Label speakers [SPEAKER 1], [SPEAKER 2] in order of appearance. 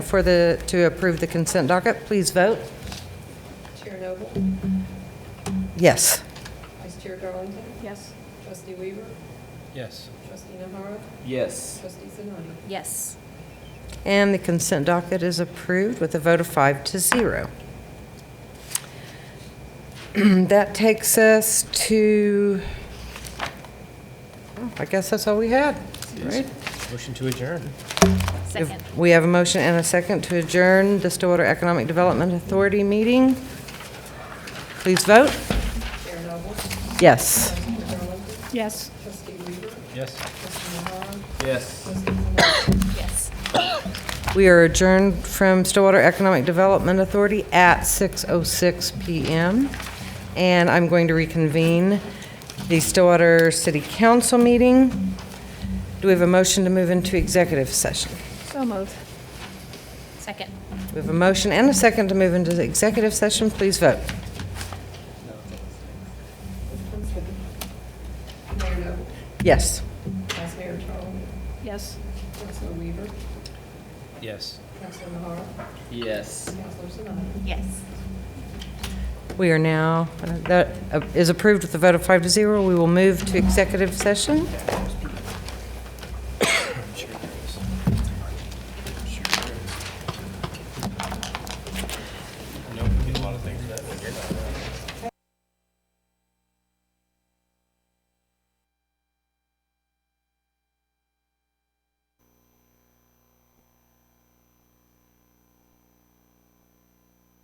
[SPEAKER 1] for the, to approve the consent docket, please vote.
[SPEAKER 2] Chair Noble,
[SPEAKER 1] Yes.
[SPEAKER 2] Vice Chair Darlington,
[SPEAKER 3] Yes.
[SPEAKER 2] Trustee Weaver,
[SPEAKER 4] Yes.
[SPEAKER 2] Trustee Nahara,
[SPEAKER 4] Yes.
[SPEAKER 2] Trustee Sinani.
[SPEAKER 3] Yes.
[SPEAKER 1] And the consent docket is approved with a vote of five to zero. That takes us to, I guess that's all we had, right?
[SPEAKER 4] Motion to adjourn.
[SPEAKER 3] Second.
[SPEAKER 1] We have a motion and a second to adjourn the Stillwater Economic Development Authority meeting. Please vote.
[SPEAKER 2] Chair Noble,
[SPEAKER 1] Yes.
[SPEAKER 2] Vice Chair Darlington,
[SPEAKER 3] Yes.
[SPEAKER 2] Trustee Weaver,
[SPEAKER 4] Yes.
[SPEAKER 2] Trustee Nahara,
[SPEAKER 4] Yes.
[SPEAKER 2] Trustee Sinani.
[SPEAKER 3] Yes.
[SPEAKER 1] We are adjourned from Stillwater Economic Development Authority at 6:06 PM. And I'm going to reconvene the Stillwater City Council meeting. Do we have a motion to move into executive session?
[SPEAKER 3] So moved. Second.
[SPEAKER 1] We have a motion and a second to move into the executive session. Please vote.
[SPEAKER 2] Mayor Noble,
[SPEAKER 1] Yes.
[SPEAKER 2] Vice Mayor Darlington,
[SPEAKER 3] Yes.
[SPEAKER 2] Councilor Weaver,
[SPEAKER 4] Yes.
[SPEAKER 2] Councilor Nahara,
[SPEAKER 4] Yes.
[SPEAKER 2] Councilor Sinani.
[SPEAKER 3] Yes.
[SPEAKER 1] We are now, that uh, is approved with a vote of five to zero. We will move to executive session.